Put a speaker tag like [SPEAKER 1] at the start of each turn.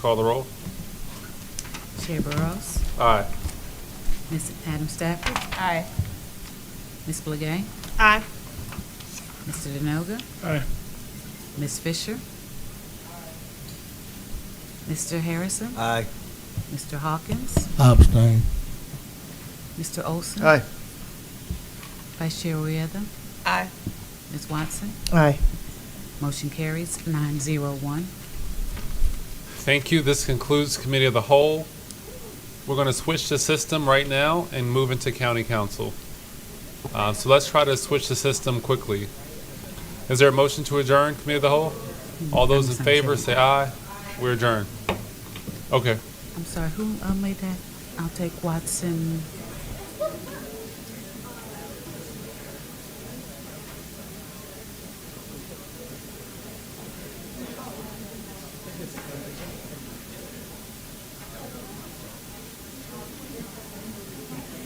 [SPEAKER 1] call the roll.
[SPEAKER 2] Chair Burrows,
[SPEAKER 1] Aye.
[SPEAKER 2] Ms. Adam Stafford,
[SPEAKER 3] Aye.
[SPEAKER 2] Ms. Blagay,
[SPEAKER 3] Aye.
[SPEAKER 2] Mr. Denoga,
[SPEAKER 4] Aye.
[SPEAKER 2] Ms. Fisher, Mr. Harrison,
[SPEAKER 5] Aye.
[SPEAKER 2] Mr. Hawkins,
[SPEAKER 4] Abstain.
[SPEAKER 2] Mr. Olson.
[SPEAKER 5] Aye.
[SPEAKER 2] Vice Chair Reuther,
[SPEAKER 3] Aye.
[SPEAKER 2] Ms. Watson,
[SPEAKER 5] Aye.
[SPEAKER 2] motion carries nine zero one.
[SPEAKER 1] Thank you. This concludes Committee of the Whole. We're going to switch the system right now and move into County Council. Uh, So let's try to switch the system quickly. Is there a motion to adjourn Committee of the Whole? All those in favor, say aye. We adjourn. Okay.
[SPEAKER 2] I'm sorry, who uh, made that? I'll take Watson.